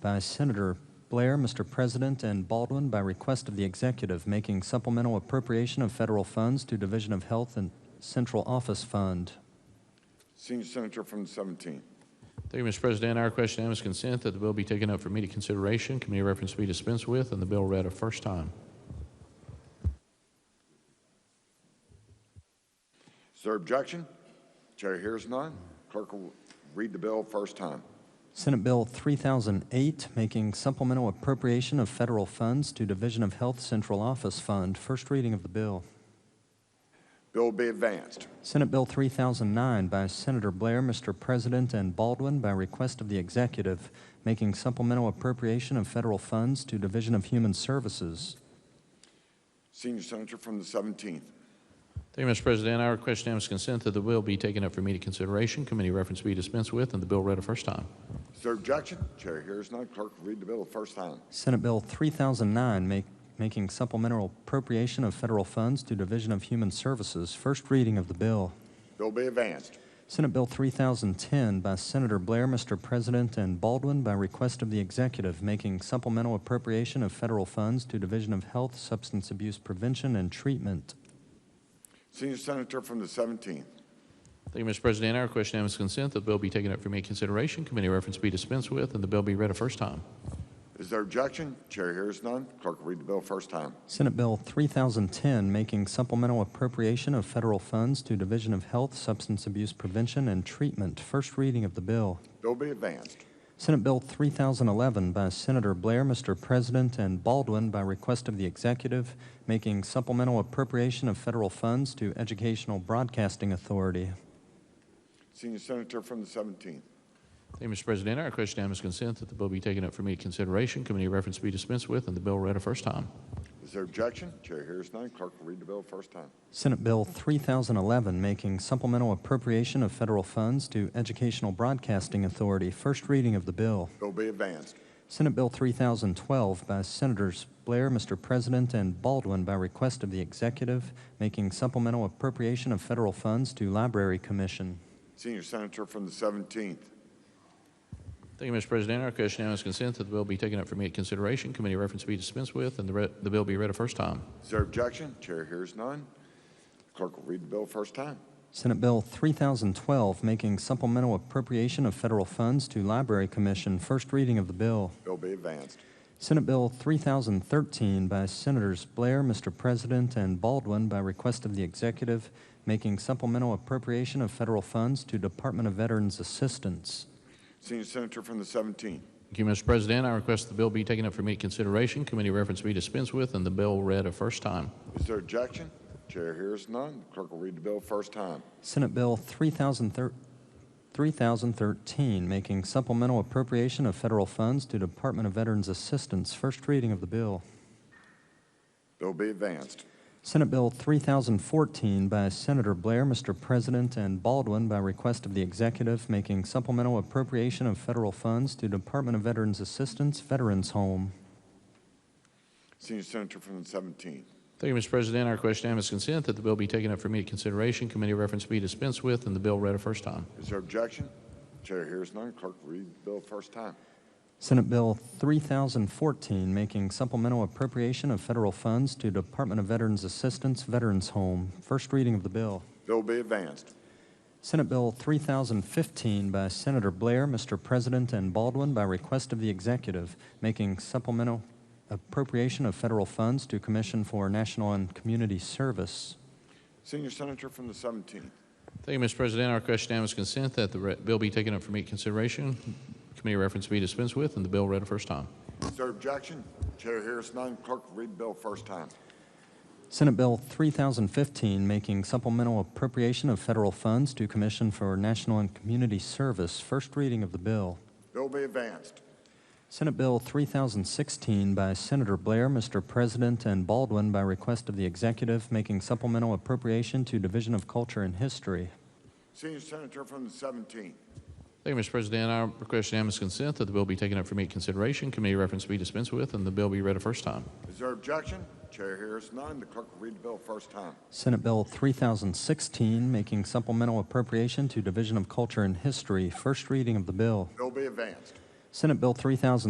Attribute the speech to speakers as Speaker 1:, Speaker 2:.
Speaker 1: by Senator Blair, Mr. President, and Baldwin by request of the executive making supplemental appropriation of federal funds to Division of Health and Central Office Fund.
Speaker 2: Senior Senator from the 17th.
Speaker 3: Thank you, Mr. President. Our question is consent that the bill be taken up for immediate consideration, committee reference be dispensed with, and the bill read a first time.
Speaker 2: Is there objection? Chair hears none. Clerk will read the bill first time.
Speaker 1: Senate Bill 3008, making supplemental appropriation of federal funds to Division of Health Central Office Fund. First reading of the bill.
Speaker 2: Bill will be advanced.
Speaker 1: Senate Bill 3009 by Senator Blair, Mr. President, and Baldwin by request of the executive, making supplemental appropriation of federal funds to Division of Human Services.
Speaker 2: Senior Senator from the 17th.
Speaker 3: Thank you, Mr. President. Our question is consent that the bill be taken up for immediate consideration, committee reference be dispensed with, and the bill read a first time.
Speaker 2: Is there objection? Chair hears none. Clerk will read the bill first time.
Speaker 1: Senate Bill 3009 make, making supplemental appropriation of federal funds to Division of Human Services. First reading of the bill.
Speaker 2: Bill be advanced.
Speaker 1: Senate Bill 3010 by Senator Blair, Mr. President, and Baldwin by request of the executive making supplemental appropriation of federal funds to Division of Health, Substance Abuse Prevention and Treatment.
Speaker 2: Senior Senator from the 17th.
Speaker 3: Thank you, Mr. President. Our question is consent that the bill be taken up for immediate consideration, committee reference be dispensed with, and the bill be read a first time.
Speaker 2: Is there objection? Chair hears none. Clerk will read the bill first time.
Speaker 1: Senate Bill 3010 making supplemental appropriation of federal funds to Division of Health, Substance Abuse Prevention and Treatment. First reading of the bill.
Speaker 2: Bill be advanced.
Speaker 1: Senate Bill 3011 by Senator Blair, Mr. President, and Baldwin by request of the executive, making supplemental appropriation of federal funds to Educational Broadcasting Authority.
Speaker 2: Senior Senator from the 17th.
Speaker 3: Thank you, Mr. President. Our question is consent that the bill be taken up for immediate consideration, committee reference be dispensed with, and the bill read a first time.
Speaker 2: Is there objection? Chair hears none. Clerk will read the bill first time.
Speaker 1: Senate Bill 3011, making supplemental appropriation of federal funds to Educational Broadcasting Authority. First reading of the bill.
Speaker 2: Bill be advanced.
Speaker 1: Senate Bill 3012 by Senators Blair, Mr. President, and Baldwin by request of the executive, making supplemental appropriation of federal funds to Library Commission.
Speaker 2: Senior Senator from the 17th.
Speaker 3: Thank you, Mr. President. Our question now is consent that the bill be taken up for immediate consideration, committee reference be dispensed with, and the, re- the bill be read a first time.
Speaker 2: Is there objection? Chair hears none. Clerk will read the bill first time.
Speaker 1: Senate Bill 3012, making supplemental appropriation of federal funds to Library Commission. First reading of the bill.
Speaker 2: Bill be advanced.
Speaker 1: Senate Bill 3013 by Senators Blair, Mr. President, and Baldwin by request of the executive, making supplemental appropriation of federal funds to Department of Veterans Assistance.
Speaker 2: Senior Senator from the 17th.
Speaker 3: Thank you, Mr. President. I request the bill be taken up for immediate consideration, committee reference be dispensed with, and the bill read a first time.
Speaker 2: Is there objection? Chair hears none. Clerk will read the bill first time.
Speaker 1: Senate Bill 3013, 3013, making supplemental appropriation of federal funds to Department of Veterans Assistance. First reading of the bill.
Speaker 2: Bill be advanced.
Speaker 1: Senate Bill 3014 by Senator Blair, Mr. President, and Baldwin by request of the executive, making supplemental appropriation of federal funds to Department of Veterans Assistance Veterans Home.
Speaker 2: Senior Senator from the 17th.
Speaker 3: Thank you, Mr. President. Our question is consent that the bill be taken up for immediate consideration, committee reference be dispensed with, and the bill read a first time.
Speaker 2: Is there objection? Chair hears none. Clerk will read the bill first time.
Speaker 1: Senate Bill 3014, making supplemental appropriation of federal funds to Department of Veterans Assistance Veterans Home. First reading of the bill.
Speaker 2: Bill be advanced.
Speaker 1: Senate Bill 3015 by Senator Blair, Mr. President, and Baldwin by request of the executive, making supplemental appropriation of federal funds to Commission for National and Community Service.
Speaker 2: Senior Senator from the 17th.
Speaker 3: Thank you, Mr. President. Our question now is consent that the re- bill be taken up for immediate consideration, committee reference be dispensed with, and the bill read a first time.
Speaker 2: Is there objection? Chair hears none. Clerk will read the bill first time.
Speaker 1: Senate Bill 3015, making supplemental appropriation of federal funds to Commission for National and Community Service. First reading of the bill.
Speaker 2: Bill be advanced.
Speaker 1: Senate Bill 3016 by Senator Blair, Mr. President, and Baldwin by request of the executive, making supplemental appropriation to Division of Culture and History.
Speaker 2: Senior Senator from the 17th.
Speaker 3: Thank you, Mr. President. Our request now is consent that the bill be taken up for immediate consideration, committee reference be dispensed with, and the bill be read a first time.
Speaker 2: Is there objection? Chair hears none. The clerk will read the bill first time.
Speaker 1: Senate Bill 3016, making supplemental appropriation to Division of Culture and History. First reading of the bill.
Speaker 2: Bill be advanced.
Speaker 1: Senate Bill 3000.